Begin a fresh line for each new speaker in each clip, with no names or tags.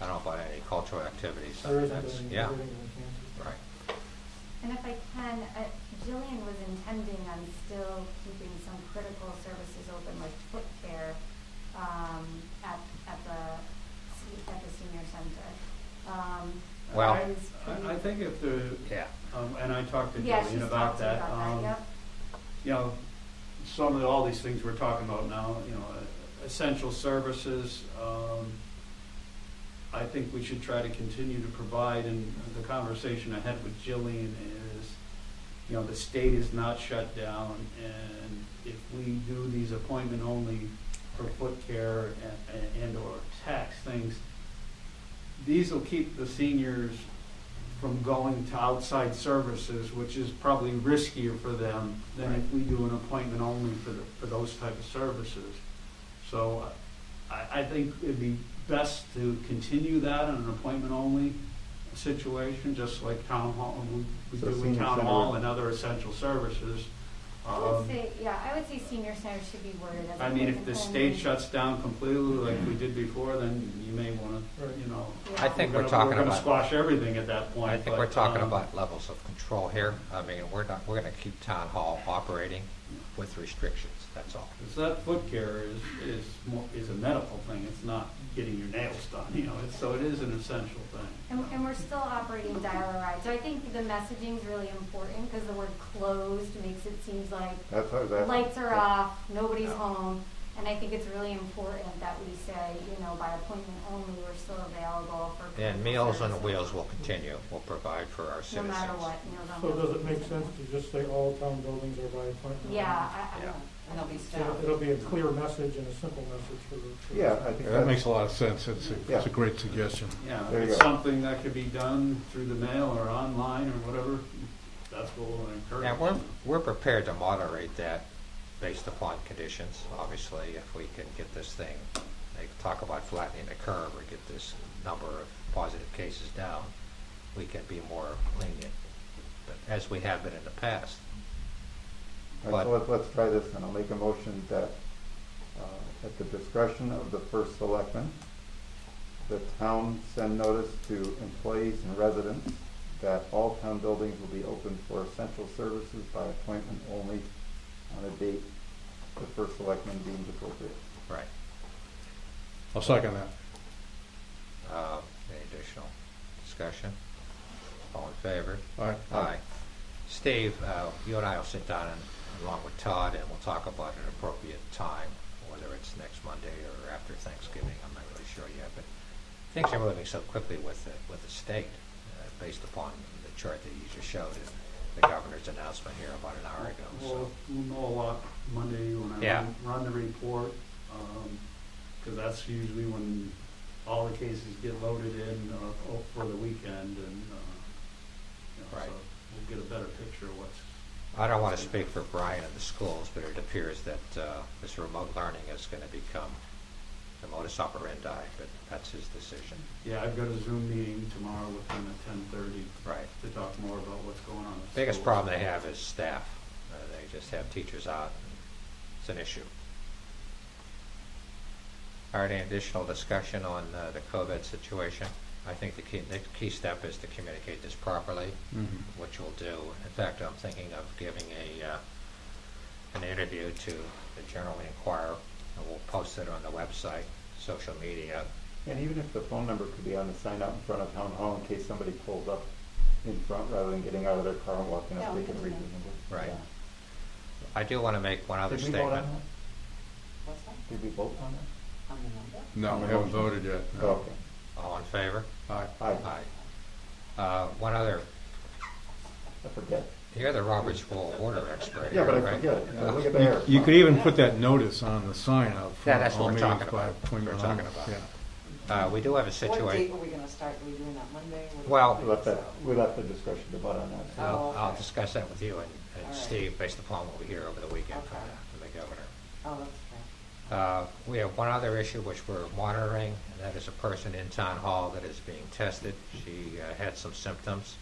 I don't know about any cultural activities. so
There isn't
that's-
any,
Yeah,
there isn't any cancers.
right.
And if I can, uh, Jillian was intending on still keeping some critical services open like foot care um, at, at the, se- at the senior center. Um,
Well-
that is pretty-
I, I think if the,
Yeah,
um, and I talked to
Yeah, she's
Jillian
talked
about
to you
that,
about that,
um,
yep.
you know, some of, the- all these things we're talking about now, you know, uh, essential services, um, I think we should try to continue to provide, and the conversation I had with Jillian is, you know, the state is not shut down, and if we do these appointment only for foot care and, and or tax things, these will keep the seniors from going to outside services, which is probably riskier for them than if we do an appointment only for the, for those type of services. So I, I think it'd be best to continue that on an appointment only situation, just like town hall, we- we
So
do with
senior
town
center.
hall and other essential services.
I would
Um,
say, yeah, I would say senior center should be worded as.
I mean,
an
if the state
only-
shuts down completely like we did before, then you may wanna, you know.
Yeah.
I think
we're
we're
gonna-
talking
We're gonna
about,
squash everything at that point.
I think
but,
we're talking
um,
about levels of control here. I mean, we're not, we're gonna keep town hall operating with restrictions, that's all.
Because that foot care is, is more, is a medical thing, it's not getting your nails done, you know, it's, so it is an essential
And,
thing.
and we're still operating dial a ride, so I think the messaging is really important, because the word closed makes it seems like
That's how that.
lights are off, nobody's
Yeah.
home, and I think it's really important that we say, you know, by appointment only, we're still available for.
And
critical
Meals on
services.
Wheels will continue, will provide for our
No
citizens.
matter what, meals on
So
wheels.
does it make sense to just say all town buildings are by appointment?
Yeah, I, I
Yeah.
don't.
And they'll be
So
staffed.
It'll be a clear message and a simple message for. for-
Yeah, I think
That
that,
makes a lot of sense. It's a, it's a great suggestion.
Yeah,
There
if
you
it's
go.
something that could be done through the mail or online or whatever, that's what we'll encourage.
And we're, we're prepared to moderate that based upon conditions, obviously, if we can get this thing, they talk about flattening the curve or get this number of positive cases down, we can be more lenient, but as we have been in the past.
let's, let's- let's try this, and I'll make a motion that, uh, at the discretion of the first selectman, the town send notice to employees and residents that all town buildings will be open for essential services by appointment only on a date the first selectman deems appropriate.
Right.
I'll second that.
Um, Any additional discussion? All in favor?
All right.
Uh,
Aye. Steve, uh, you and I will sit down and, along with Todd, and we'll talk about an appropriate time, whether it's next Monday or after Thanksgiving, I'm not really sure yet, but things are moving so quickly with the, with the state, uh, based upon the chart that you just showed and the governor's announcement here about an hour ago,
We'll,
so.
we'll know a lot Monday when I
Yeah.
run- run the report, um, because that's usually when all the cases get loaded in uh, o- for the weekend and, uh, you know,
Right.
so we'll get a better picture of what's.
I don't want to speak for Brian and the schools, but it appears that uh, this remote learning is going to become the modus operandi, but that's his decision.
Yeah, I've got a Zoom meeting tomorrow with them at ten thirty
Right.
to talk more about what's going on. at
Biggest
school.
problem they have is staff. Uh, They just have teachers out. It's an issue. All right, any additional discussion on uh, the COVID situation? I think the key, the key step is to communicate this properly,
Mhm.
which we'll do. In fact, I'm thinking of giving a, uh, an interview to the Journal Inquirer, and we'll post it on the website, social media.
And even if the phone number could be on the sign out in front of town hall in case somebody pulls up in front rather than getting out of their car and walking
Yeah,
up,
we
they can
can do
read
that.
the number.
Right.
Yeah.
I do want to make one other
Did we vote on
statement.
that?
What's that?
Did we vote on that?
On the number?
No, we haven't voted yet. no.
Okay.
All in favor?
Aye.
Aye.
Uh, One other
I forget.
You're the Roberts Rule of Order expert.
Yeah, but I
right?
forget. it. Look at the hair.
You could even put that notice on the sign out
Yeah,
front.
that's
all
what we're
meetings
talking
by
about.
appointment
We're talking
only.
about.
oh. Yeah.
Uh, we do have a
What date
situation,
are we gonna start? Are we doing that Monday? What-
Well-
We left that, we left the discretion to vote on that. so-
I'll, I'll
Oh, okay.
discuss that with you and,
All
and
right.
Steve based upon what we hear over the weekend from
Okay.
the, from the governor.
Oh, that's right.
Uh, we have one other issue which we're monitoring, and that is a person in town hall that is being tested. She uh, had some symptoms.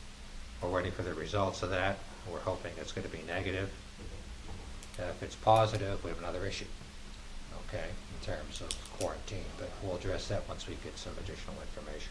We're waiting for the results of that. We're hoping it's gonna be negative. And If it's positive, we have another issue, okay, in terms of quarantine, but we'll address that once we get some additional information.